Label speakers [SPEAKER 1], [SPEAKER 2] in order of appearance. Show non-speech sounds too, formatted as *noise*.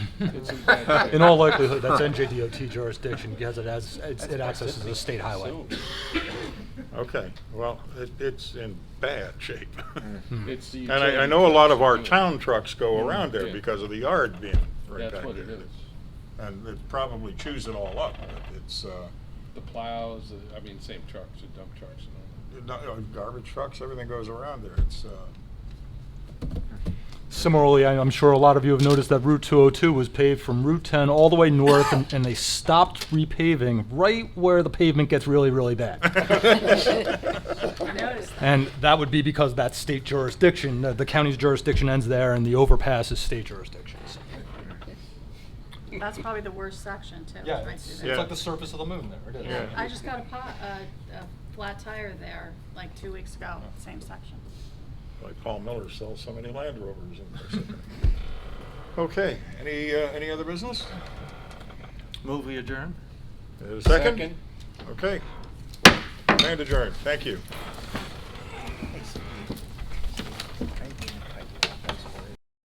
[SPEAKER 1] It's in
[SPEAKER 2] *laughs*
[SPEAKER 1] bad
[SPEAKER 2] In all likelihood, that's NJDOT jurisdiction because it has, it's- it accesses a state highway.
[SPEAKER 1] So,
[SPEAKER 3] *laughs* Okay, well, it, it's in bad shape.
[SPEAKER 2] Hmm.
[SPEAKER 1] Mm-hmm. It's the.
[SPEAKER 3] And I, I
[SPEAKER 1] utility
[SPEAKER 3] know a lot of our
[SPEAKER 1] trucks do it.
[SPEAKER 3] town trucks go around there
[SPEAKER 1] Yeah.
[SPEAKER 3] because of the yard being right
[SPEAKER 1] That's
[SPEAKER 3] back
[SPEAKER 1] what it
[SPEAKER 3] there.
[SPEAKER 1] is.
[SPEAKER 3] And it probably chews it all up, but it's, uh,
[SPEAKER 1] The plows, the- I mean, same trucks, the dump trucks and all
[SPEAKER 3] not- uh, garbage trucks, everything goes around there,
[SPEAKER 4] *laughs*
[SPEAKER 3] it's, uh, *laughs*
[SPEAKER 2] Similarly, I- I'm sure a lot of you have noticed that Route 202 was paved from Route 10 all the way north, and, and they stopped repaving right where the pavement gets really, really
[SPEAKER 3] *laughs*
[SPEAKER 2] bad.
[SPEAKER 4] noticed that.
[SPEAKER 2] And that would be because that's state jurisdiction, uh, the county's jurisdiction ends there, and the overpass is state jurisdiction. so.
[SPEAKER 4] That's probably the worst section too.
[SPEAKER 2] Yeah,
[SPEAKER 4] right
[SPEAKER 2] it's,
[SPEAKER 4] through
[SPEAKER 2] it's
[SPEAKER 4] there.
[SPEAKER 2] like the surface of the moon there, it is.
[SPEAKER 3] Yeah.
[SPEAKER 4] I just got a pot, a, a flat tire there like two weeks ago, same section.
[SPEAKER 3] like Paul Miller sells so many Land Rovers in there. Okay, any, uh, any other business?
[SPEAKER 5] Move we adjourn?
[SPEAKER 3] Is there a
[SPEAKER 1] that.
[SPEAKER 3] Second? Okay. Land adjourned, thank you.